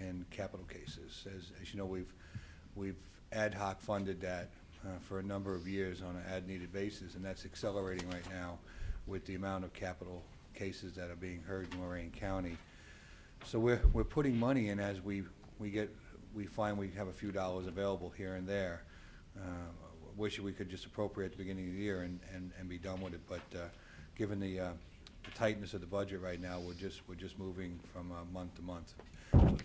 and capital cases. As, as you know, we've, we've ad hoc funded that uh, for a number of years on an ad-needed basis, and that's accelerating right now with the amount of capital cases that are being heard in Lorraine County. So we're, we're putting money in as we, we get, we find we have a few dollars available here and there. Uh, Wish we could just appropriate at the beginning of the year and, and, and be done with it, but, uh, given the, uh, the tightness of the budget right now, we're just, we're just moving from, uh, month to month.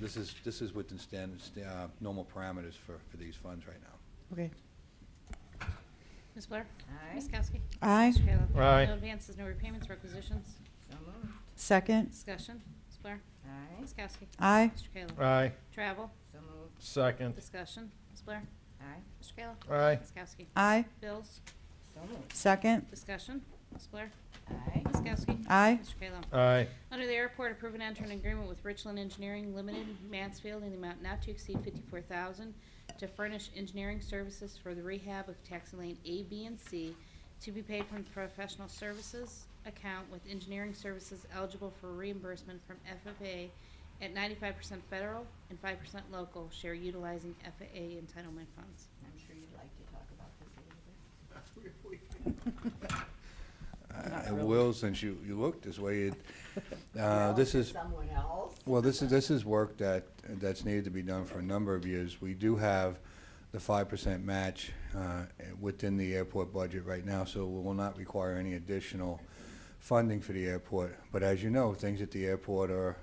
This is, this is within standard, uh, normal parameters for, for these funds right now. Okay. Ms. Blair? Aye. Ms. Kowski? Aye. Mr. Kayla? Aye. No advances, no repayments, requisitions? So moved. Second. Discussion. Ms. Blair? Aye. Ms. Kowski? Aye. Mr. Kayla? Aye. Travel? So moved. Second. Discussion. Ms. Blair? Aye. Mr. Kayla? Aye. Ms. Kowski? Aye. Bills? So moved. Second. Discussion. Ms. Blair? Aye. Ms. Kowski? Aye. Mr. Kayla? Aye. Under the airport, approve and enter an agreement with Richland Engineering Limited, Mansfield, in the amount not to exceed fifty-four thousand to furnish engineering services for the rehab of taxi lane A, B, and C to be paid from professional services account with engineering services eligible for reimbursement from FFA at ninety-five percent federal and five percent local share utilizing FAA entitlement funds. I'm sure you'd like to talk about this a little bit. Not It really. will, since you, you look this way, it, uh, Well, this to is, Someone else. Well, this is, this is work that, that's needed to be done for a number of years. We do have the five percent match uh, within the airport budget right now, so we will not require any additional funding for the airport. But as you know, things at the airport are,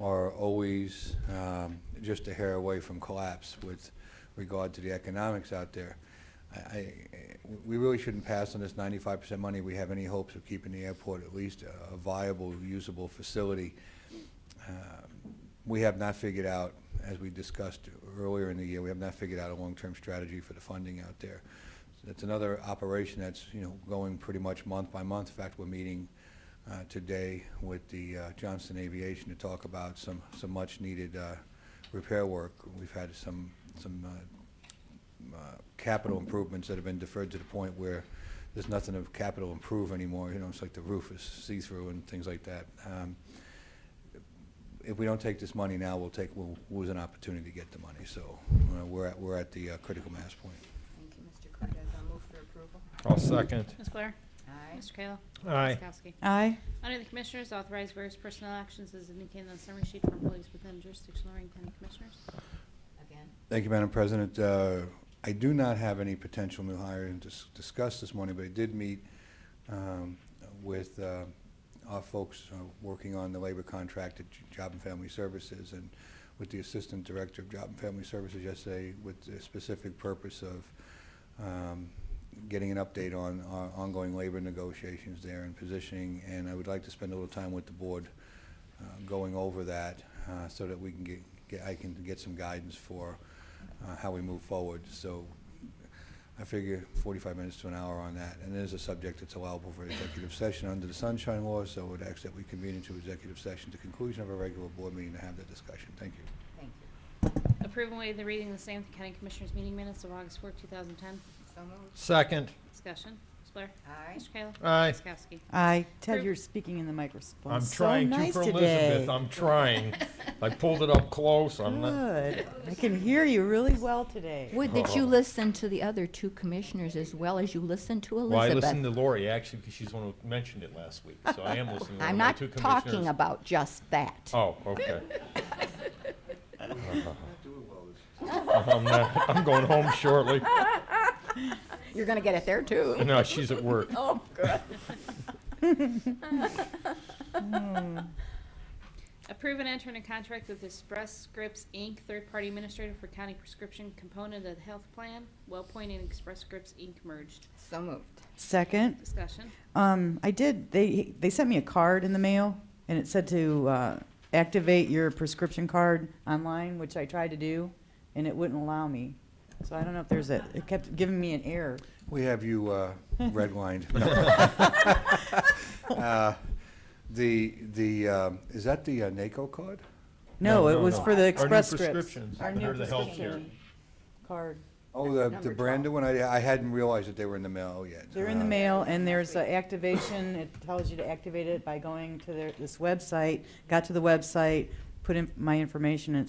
are always um, just a hair away from collapse with regard to the economics out there. I, I, we really shouldn't pass on this ninety-five percent money. We have any hopes of keeping the airport at least a viable, usable facility. Um, We have not figured out, as we discussed earlier in the year, we have not figured out a long-term strategy for the funding out there. So That's another operation that's, you know, going pretty much month by month. In fact, we're meeting uh, today with the uh, Johnston Aviation to talk about some, some much-needed uh, repair work. We've had some, some uh, uh, capital improvements that have been deferred to the point where there's nothing of capital improve anymore, you know, it's like the roof is see-through and things like that. Um, if we don't take this money now, we'll take, we'll lose an opportunity to get the money, so uh, we're at, we're at the uh, critical mass point. Thank you, Mr. Cortez. I'll move for approval. I'll second. Ms. Blair? Aye. Mr. Kayla? Aye. Ms. Kowski? Aye. Under the Commissioners, authorize various personnel actions as indicated on the summary sheet for employees within jurisdiction of Lorraine County Commissioners. Again. Thank you, Madam President. Uh, I do not have any potential new hire to dis- discuss this morning, but I did meet um, with uh, our folks uh, working on the labor contract at J- Job and Family Services and with the Assistant Director of Job and Family Services yesterday with the specific purpose of um, getting an update on our ongoing labor negotiations there and positioning. And I would like to spend a little time with the board uh, going over that uh, so that we can get, get- I can get some guidance for uh, how we move forward. So I figure 45 minutes to an hour on that. And it is a subject that's allowable for executive session under the Sunshine Law, so I would ask that we convene into executive session to conclusion of a regular board meeting to have that discussion. Thank you. Thank you. Approve and waive the reading of the same at the County Commissioners meeting minutes of August 4, 2010. So moved. Second. Discussion. Ms. Blair? Aye. Mr. Kayla? Aye. Ms. Kowski? Aye. Ted, Approve. you're speaking in the microphone. I'm So trying to nice for today. Elizabeth. I'm trying. I pulled it up close. I'm Oh, not. Good. I can hear you really well today. Would that Oh. you listen to the other two commissioners as well as you listen to Well, I listened Elizabeth? to Lori actually because she's the one who mentioned it last week. So I am listening to I'm my not two talking commissioners. about just that. Oh, okay. Uh-huh. I'm, not, I'm going home shortly. You're going to get it there too. No, she's at work. Oh, good. Oh. Approve and enter in a contract with Express Scripts, Inc., third-party administrator for county prescription component of the health plan. WellPoint and Express Scripts, Inc. merged. So moved. Second. Discussion. Um, I did. They they sent me a card in the mail, and it said to uh, activate your prescription card online, which I tried to do, and it wouldn't allow me. So I don't know if there's a. It kept giving me an error. We have you uh, redlined. No. Uh, The, the, um, is that the uh, NACO card? No, No, it no, was no. for Our the new express scripts. prescriptions. Our new They're the healthcare. prescription card. Oh, the, the Number brand new one? I, I hadn't realized that they were in the mail yet. They're in the Uh, mail, and there's an activation. It tells you to activate it by going to their, this website. Got to the website, put in my information, and it